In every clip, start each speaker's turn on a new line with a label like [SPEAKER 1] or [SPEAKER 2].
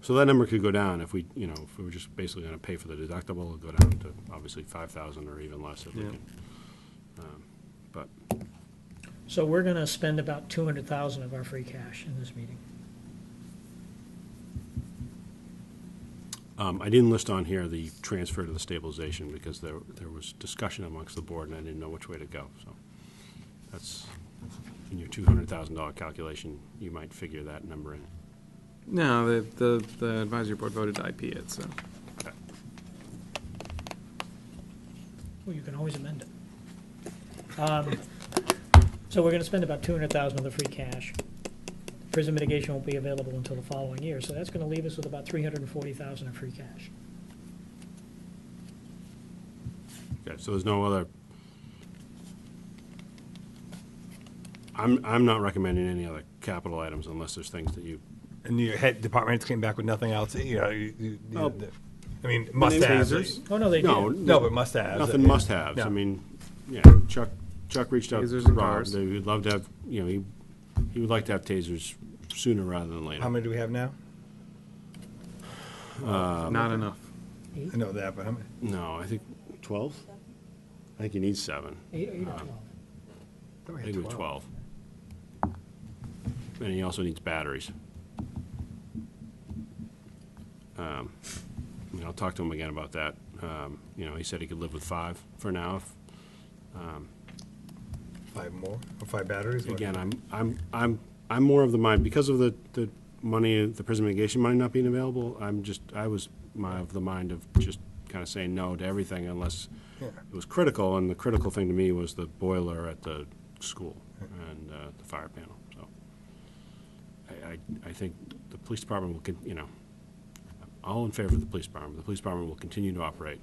[SPEAKER 1] So that number could go down if we, you know, if we were just basically gonna pay for the deductible, it'd go down to obviously five thousand or even less if we
[SPEAKER 2] Yeah.
[SPEAKER 1] can. Um, But,
[SPEAKER 3] So we're gonna spend about two hundred thousand of our free cash in this meeting.
[SPEAKER 1] um, I didn't list on here the transfer to the stabilization because there, there was discussion amongst the board and I didn't know which way to go, so. That's, in your two hundred thousand dollar calculation, you might figure that number in.
[SPEAKER 2] No, the, the, the advisory board voted to IP it, so.
[SPEAKER 3] Well, you can always amend it. Um, So we're gonna spend about two hundred thousand of the free cash. Prison mitigation won't be available until the following year, so that's gonna leave us with about three hundred and forty thousand of free cash.
[SPEAKER 1] Okay, so there's no other. I'm, I'm not recommending any other capital items unless there's things that you.
[SPEAKER 4] And your head department heads came back with nothing else, you know, you- you- you-
[SPEAKER 1] Oh.
[SPEAKER 4] the- I mean, must-haves.
[SPEAKER 3] Oh, no, they
[SPEAKER 1] No,
[SPEAKER 3] did.
[SPEAKER 4] No, but Uh, must-haves.
[SPEAKER 1] Nothing must-haves. I
[SPEAKER 4] No.
[SPEAKER 1] mean, yeah, Chuck, Chuck reached out to
[SPEAKER 2] Tasers and
[SPEAKER 1] Rob.
[SPEAKER 2] cars.
[SPEAKER 1] They would love to have, you know, he, he would like to have tasers sooner rather than
[SPEAKER 4] How
[SPEAKER 1] later.
[SPEAKER 4] many do we have now?
[SPEAKER 2] Not enough.
[SPEAKER 4] I know that, but how many?
[SPEAKER 1] No, I think twelve? I think he needs seven.
[SPEAKER 3] Eight, eight or twelve.
[SPEAKER 4] thought we
[SPEAKER 1] I
[SPEAKER 4] had
[SPEAKER 1] think it was twelve. And he also needs batteries. Um, I mean, I'll talk to him again about that. Um, you know, he said he could live with five for now. if-
[SPEAKER 4] Five more, or five batteries? What?
[SPEAKER 1] Again, I'm, I'm, I'm, I'm more of the mind, because of the, the money, the prison mitigation money not being available, I'm just, I was my, of the mind of just kind of saying no to everything unless
[SPEAKER 4] Yeah.
[SPEAKER 1] it was critical, and the critical thing to me was the boiler at the school and, uh, the fire panel, so. I, I, I think the police department will, con- you know, I'm all in favor of the police department, the police department will continue to operate.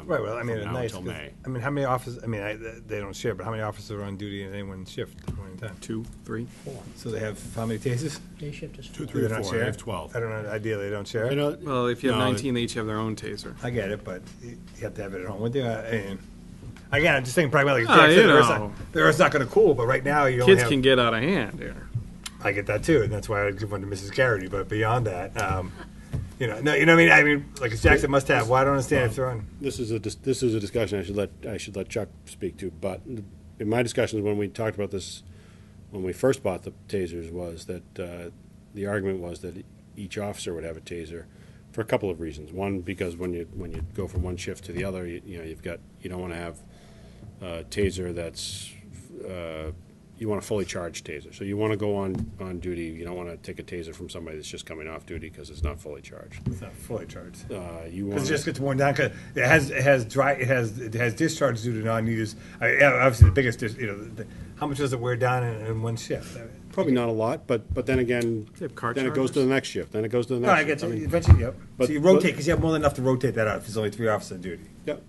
[SPEAKER 1] um,
[SPEAKER 4] Right, well, I
[SPEAKER 1] from
[SPEAKER 4] mean, it's
[SPEAKER 1] now
[SPEAKER 4] nice,
[SPEAKER 1] until
[SPEAKER 4] 'cause-
[SPEAKER 1] May.
[SPEAKER 4] I mean, how many officers, I mean, I, they don't share, but how many officers are on duty at any one shift at one time?
[SPEAKER 2] Two, three?
[SPEAKER 3] Four.
[SPEAKER 4] So they have, how many tasers?
[SPEAKER 3] Day shift is four.
[SPEAKER 1] three,
[SPEAKER 4] They
[SPEAKER 1] or
[SPEAKER 4] don't
[SPEAKER 1] four. I have
[SPEAKER 4] share?
[SPEAKER 1] 12.
[SPEAKER 4] I don't know, ideally, they don't share.
[SPEAKER 1] You know,
[SPEAKER 2] Well, if you have
[SPEAKER 1] no, it-
[SPEAKER 2] nineteen, they each have their own taser.
[SPEAKER 4] I get it, but you you have to have it at home with you. uh, and- Again, I'm just thinking pragmatically.
[SPEAKER 2] Ah,
[SPEAKER 4] Jack said
[SPEAKER 2] you
[SPEAKER 4] the earth's
[SPEAKER 2] know.
[SPEAKER 4] not- The earth's not gonna cool, but right now you only
[SPEAKER 2] Kids
[SPEAKER 4] have.
[SPEAKER 2] can get out of hand here.
[SPEAKER 4] I get that too, and that's why I would give one to Mrs. Garrity. But beyond that, um, you know, no, you know, what I mean, I mean, like it's Jackson must have. Well, I don't understand if they're on.
[SPEAKER 1] this is a, dis- this is a discussion I should let, I should let Chuck speak to, but in my discussions when we talked about this, when we first bought the tasers, was that, uh, the argument was that each officer would have a taser for a couple of reasons. One, because when you, when you go from one shift to the other, you, you know, you've got, you don't wanna have a taser that's, uh, you want a fully charged taser. So you wanna go on, on duty, you don't wanna take a taser from somebody that's just coming off duty, cause it's not fully charged.
[SPEAKER 4] It's not fully charged.
[SPEAKER 1] Uh, you want.
[SPEAKER 4] Because it just gets worn down. 'cause it has it has dry it has it has discharge due to non-use. I, yeah, obviously, the biggest dis, you know, the, how much does it wear down in, in one shift? I mean,
[SPEAKER 1] Probably not a lot, but, but then again,
[SPEAKER 2] They have car
[SPEAKER 1] then it goes to the
[SPEAKER 2] chargers?
[SPEAKER 1] next shift, then it goes to the
[SPEAKER 4] no,
[SPEAKER 1] next
[SPEAKER 4] I
[SPEAKER 1] shift.
[SPEAKER 4] get you.
[SPEAKER 1] mean,
[SPEAKER 4] Eventually, yep.
[SPEAKER 1] But-
[SPEAKER 4] so you
[SPEAKER 1] but-
[SPEAKER 4] rotate because you have more than enough to rotate that out if there's only three officers on duty.
[SPEAKER 1] Yep.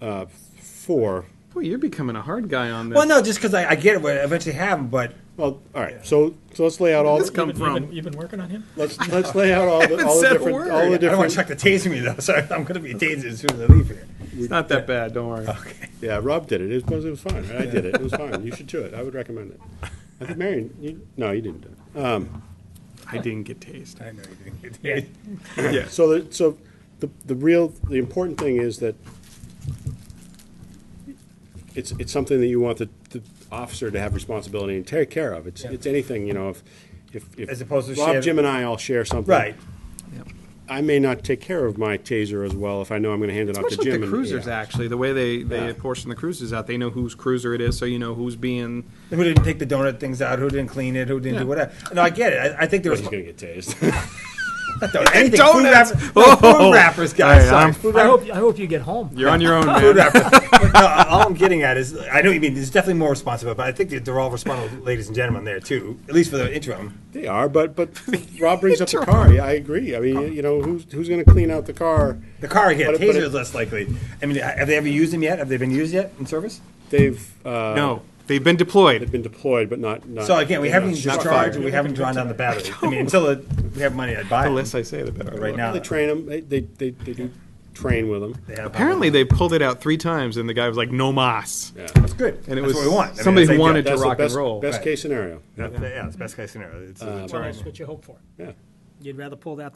[SPEAKER 1] Uh, four,
[SPEAKER 2] Boy, you're becoming a hard guy on this.
[SPEAKER 4] Well, no, just because I, I get it. But I eventually, have them, but
[SPEAKER 1] well, all right, so, so let's lay out all,
[SPEAKER 2] This
[SPEAKER 1] the-
[SPEAKER 2] come
[SPEAKER 3] You've been- you've
[SPEAKER 2] from?
[SPEAKER 3] been- You've been working on him?
[SPEAKER 1] let's, let's lay out all the, all the
[SPEAKER 2] said a
[SPEAKER 1] different,
[SPEAKER 2] word.
[SPEAKER 1] all the
[SPEAKER 4] I don't want
[SPEAKER 1] different.
[SPEAKER 4] Chuck to tase me though. So I'm going to be tased as soon as I leave here.
[SPEAKER 2] It's not that bad, don't worry.
[SPEAKER 4] Okay.
[SPEAKER 1] Yeah, Rob did it, it was, it was fine, right? I did it, it was fine, you should do it, I would recommend it. I think Marion, you, no, you didn't do it.
[SPEAKER 2] I didn't get tased.
[SPEAKER 4] I know you didn't get tased.
[SPEAKER 2] Yeah.
[SPEAKER 1] So, the- so the, the real, the important thing is that it's, it's something that you want the, the officer to have responsibility and take care of. It's,
[SPEAKER 4] Yeah.
[SPEAKER 1] it's anything, you know, if, if. if
[SPEAKER 4] As opposed to share-
[SPEAKER 1] Rob, Jim and I all share something.
[SPEAKER 4] Right.
[SPEAKER 1] I may not take care of my taser as well if I know I'm gonna hand it off to
[SPEAKER 2] Much
[SPEAKER 1] Jim.
[SPEAKER 2] like the
[SPEAKER 1] and-
[SPEAKER 2] cruisers,
[SPEAKER 1] yeah.
[SPEAKER 2] actually, the way they,
[SPEAKER 1] Yeah.
[SPEAKER 2] they portion the cruisers out, they know whose cruiser it is, so you know who's being,
[SPEAKER 4] Who didn't take the donut things out? Who didn't clean it? Who didn't
[SPEAKER 2] Yeah.
[SPEAKER 4] do whatever? No, I get it. I, I think there was
[SPEAKER 1] He's gonna get tased.
[SPEAKER 4] don't, anything. Food,
[SPEAKER 2] donuts!
[SPEAKER 4] wrapper, no,
[SPEAKER 2] Oh!
[SPEAKER 4] food wrappers, guys.
[SPEAKER 2] Hey, I'm-
[SPEAKER 4] sorry, food
[SPEAKER 3] I
[SPEAKER 4] wrapper-
[SPEAKER 3] hope, I hope you get home.
[SPEAKER 2] you're on your own,
[SPEAKER 4] food
[SPEAKER 2] man.
[SPEAKER 4] wrappers. But no, all I'm getting at is, I know what you mean. There's definitely more responsible, but I think that they're all responsible, ladies and gentlemen, there too. At least for the interim.
[SPEAKER 1] They are, but, but Rob brings up the car, Yeah, I agree, I mean, you know, who's, who's gonna clean out the car?
[SPEAKER 4] The car again.
[SPEAKER 1] But it- but
[SPEAKER 4] Taser
[SPEAKER 1] it-
[SPEAKER 4] is less likely. I mean, have they ever used them yet? Have they been used yet in service?
[SPEAKER 1] They've, uh.
[SPEAKER 2] No, they've been deployed.
[SPEAKER 1] Been deployed, but not,
[SPEAKER 2] Uh,
[SPEAKER 1] not.
[SPEAKER 4] So again, we
[SPEAKER 1] they're not
[SPEAKER 4] haven't
[SPEAKER 1] struck.
[SPEAKER 4] discharged and we haven't drawn down the battery. I mean, until it, we have money, I'd buy
[SPEAKER 2] The
[SPEAKER 4] it.
[SPEAKER 2] less I say, the better.
[SPEAKER 4] Right now,
[SPEAKER 1] They train them. They, they, they, they do train with them.
[SPEAKER 4] they have-
[SPEAKER 2] Apparently, they pulled it out three times, and the guy was like, "No mas,"
[SPEAKER 1] Yeah.
[SPEAKER 4] That's good.
[SPEAKER 2] and it
[SPEAKER 4] That's
[SPEAKER 2] was
[SPEAKER 4] what we want. I mean,
[SPEAKER 2] somebody
[SPEAKER 4] that's
[SPEAKER 2] who
[SPEAKER 4] ideal.
[SPEAKER 2] wanted to
[SPEAKER 1] That's the
[SPEAKER 2] rock and
[SPEAKER 1] best,
[SPEAKER 2] roll.
[SPEAKER 1] best
[SPEAKER 4] Right.
[SPEAKER 1] case scenario.
[SPEAKER 2] Uh,
[SPEAKER 4] That- Yeah, it's best case scenario. It's a deterrent.
[SPEAKER 3] Well, that's what you hope for.
[SPEAKER 1] Yeah.
[SPEAKER 3] You'd rather pull that